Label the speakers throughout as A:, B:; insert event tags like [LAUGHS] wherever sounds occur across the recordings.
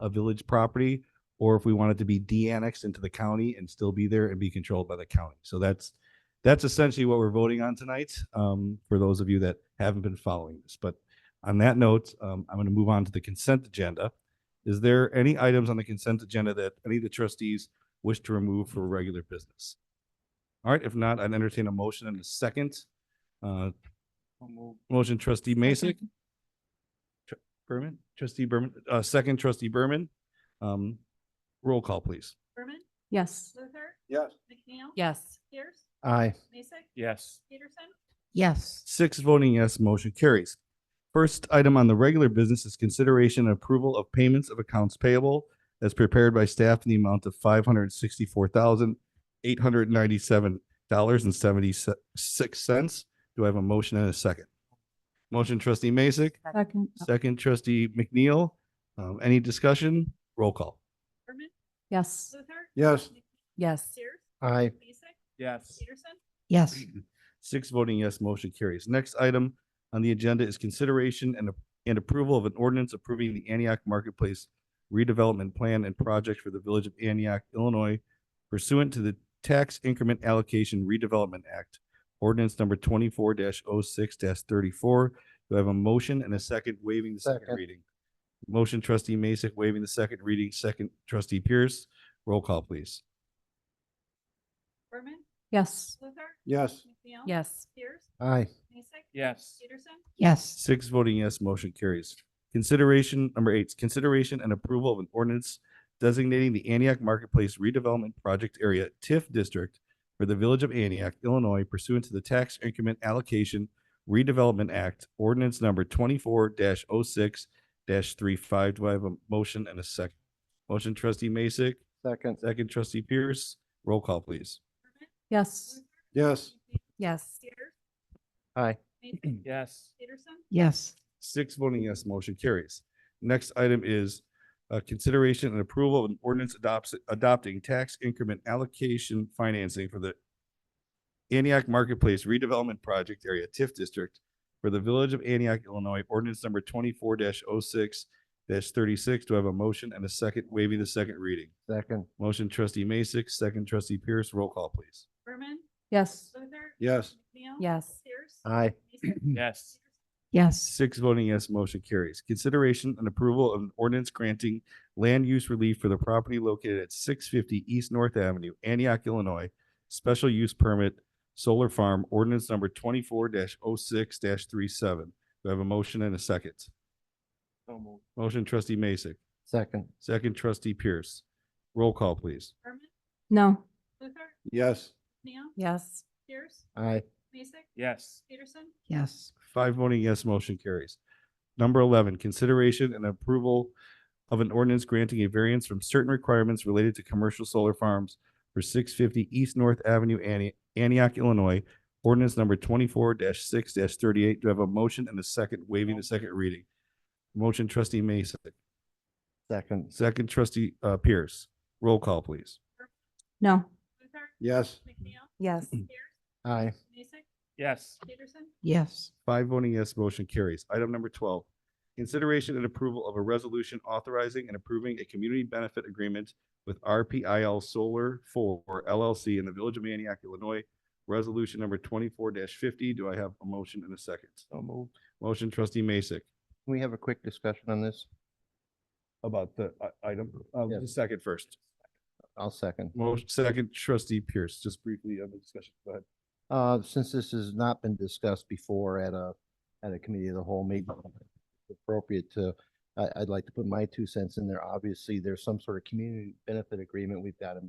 A: a village property, or if we want it to be de-annexed into the county and still be there and be controlled by the county. So that's, that's essentially what we're voting on tonight, um, for those of you that haven't been following this. But on that note, um, I'm going to move on to the consent agenda. Is there any items on the consent agenda that any of the trustees wish to remove for regular business? All right, if not, I'd entertain a motion and a second. Uh, Motion trustee Mason. Berman, trustee Berman, uh, second trustee Berman. Um, roll call, please.
B: Berman,
C: Yes.
B: Luther,
A: Yes.
B: McNeil.
C: Yes.
B: Pierce,
A: Aye.
B: Mason,
D: Yes.
B: Peterson,
C: Yes.
A: Six voting yes, motion carries. First item on the regular business is consideration and approval of payments of accounts payable as prepared by staff in the amount of five hundred sixty-four thousand eight hundred ninety-seven dollars and seventy-six cents. Do I have a motion and a second? Motion trustee Masek,
C: Second.
A: second trustee McNeil. Um, any discussion? Roll call.
B: Berman,
C: Yes.
B: Luther.
A: Yes.
B: McNeil,
C: Yes.
B: Pierce,
A: Aye.
B: Mason,
D: Yes.
B: Peterson,
C: Yes.
A: Six voting yes, motion carries. Next item on the agenda is consideration and, and approval of an ordinance approving the Antioch Marketplace redevelopment plan and project for the Village of Antioch, Illinois pursuant to the Tax Increment Allocation Redevelopment Act, ordinance number twenty-four 6 thirty-four. Do I have a motion and a second waiving the second
D: Second.
A: reading? Motion trustee Mason waiving the second reading, second trustee Pierce. Roll call, please.
B: Berman,
C: Yes.
B: Luther.
A: Yes.
B: McNeil.
C: Yes.
B: Pierce,
A: Aye.
B: Mason,
D: Yes.
B: Peterson,
C: Yes.
A: Six voting yes, motion carries. Consideration, number eight, consideration and approval of an ordinance designating the Antioch Marketplace redevelopment project area TIF district for the Village of Antioch, Illinois pursuant to the Tax Increment Allocation Redevelopment Act, ordinance number twenty-four oh 6 35 Do I have a motion and a second? Motion trustee Masek,
D: Second.
A: second trustee Pierce, roll call, please.
B: Berman,
C: Yes.
B: Luther.
D: Yes.
B: McNeil,
C: Yes.
B: Pierce.
D: Aye.
B: Mason,
D: Yes.
B: Peterson,
C: Yes.
A: Six voting yes, motion carries. Next item is uh, consideration and approval of an ordinance adopts, adopting tax increment allocation financing for the Antioch Marketplace redevelopment project area TIF district for the Village of Antioch, Illinois, ordinance number twenty-four 6 thirty-six. Do I have a motion and a second waiving the second reading?
D: Second.
A: Motion trustee Masek, second trustee Pierce, roll call, please.
B: Berman,
C: Yes.
B: Luther.
A: Yes.
B: McNeil.
C: Yes.
B: Pierce.
D: Aye.
A: [CLEARS THROAT]
B: Mason,
D: Yes.
B: Peterson,
C: Yes.
A: Six voting yes, motion carries. Consideration and approval of an ordinance granting land use relief for the property located at six fifty East North Avenue, Antioch, Illinois. Special use permit, solar farm, ordinance number twenty-four oh 6 37 Do I have a motion and a second? Motion trustee Masek,
D: Second.
A: second trustee Pierce. Roll call, please.
B: Berman,
C: No.
B: Luther,
D: Yes.
B: McNeil,
C: Yes.
B: Pierce,
D: Aye.
B: Mason,
D: Yes.
B: Peterson,
C: Yes.
A: Five voting yes, motion carries. Number eleven, consideration and approval of an ordinance granting a variance from certain requirements related to commercial solar farms for six fifty East North Avenue, Anti- Antioch, Illinois. Ordinance number twenty-four six thirty-eight. Do I have a motion and a second waiving the second reading? Motion trustee Mason,
D: Second.
A: second trustee uh, Pierce. Roll call, please.
C: No.
B: Luther,
D: Yes.
B: McNeil,
C: Yes.
B: Pierce,
D: Aye.
B: Mason,
D: Yes.
B: Peterson,
C: Yes.
A: Five voting yes, motion carries. Item number twelve, consideration and approval of a resolution authorizing and approving a community benefit agreement with RPIL Solar Four LLC in the Village of Antioch, Illinois. Resolution number twenty-four fifty. Do I have a motion and a second?
D: So moved.
A: Motion trustee Masek
D: Can we have a quick discussion on this?
A: about the uh, item, uh,
D: Yes.
A: the second first.
D: I'll second.
A: Motion, second trustee Pierce, just briefly on the discussion. Go ahead.
D: Uh, since this has not been discussed before at a, at a committee of the whole meeting, appropriate to, I, I'd like to put my two cents in there. Obviously, there's some sort of community benefit agreement we've got in,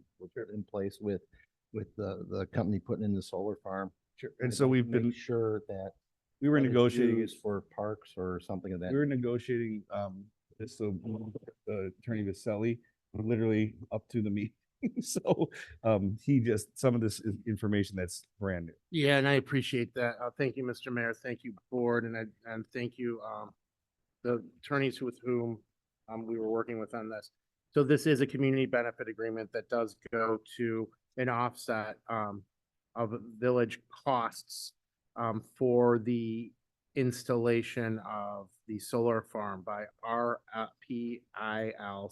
D: in place with, with the, the company putting in the solar farm.
A: Sure. And
D: I'd
A: so
D: like
A: we've
D: to make
A: been,
D: Sure that.
A: we were
D: that it's
A: negotiating.
D: used For parks or something of that.
A: We were negotiating, um, this, so, uh, Attorney Vasselli, literally up to the meeting. [LAUGHS] So, um, he just, some of this is information that's brand new.
E: Yeah, and I appreciate that. Uh, thank you, Mr. Mayor. Thank you, board, and I, and thank you, um, the attorneys with whom, um, we were working with on this. So this is a community benefit agreement that does go to an offset, um, of village costs, um, for the installation of the solar farm by R P I L